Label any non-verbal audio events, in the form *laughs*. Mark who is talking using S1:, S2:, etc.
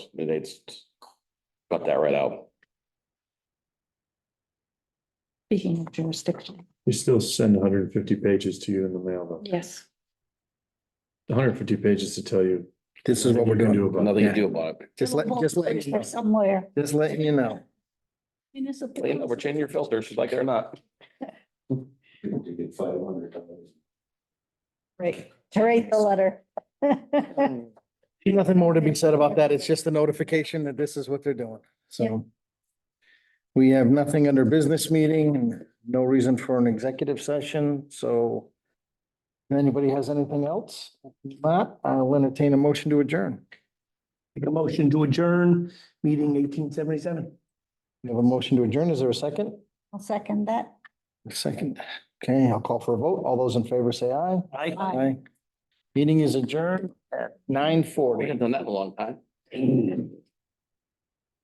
S1: They just cut that right out.
S2: Speaking of jurisdiction,
S3: They still send hundred and fifty pages to you in the mail, though.
S2: yes.
S3: hundred and fifty pages to tell you,
S4: This is what we're
S3: Nothing you can
S4: doing.
S3: do about
S1: Nothing you do about it.
S4: Just let, just let, you know.
S2: Somewhere.
S4: just letting you know.
S2: Municipal.
S1: Lena, We're changing your filters, like it or not.
S2: Right, to read the letter. *laughs*
S4: Nothing more to be said about that. It's just a notification that this is what they're doing, so. We have nothing under business meeting, and no reason for an executive session, so. if Anybody has anything else? If Not, I'll entertain a motion to adjourn.
S5: Make a motion to adjourn, meeting eighteen seventy-seven.
S4: We have a motion to adjourn. Is there a second?
S2: I'll second that.
S4: A second. Okay, I'll call for a vote. All those in favor say aye.
S5: Aye.
S2: Aye.
S4: Meeting is adjourned at nine
S1: We
S4: forty.
S1: *clears throat* haven't done that in a long time.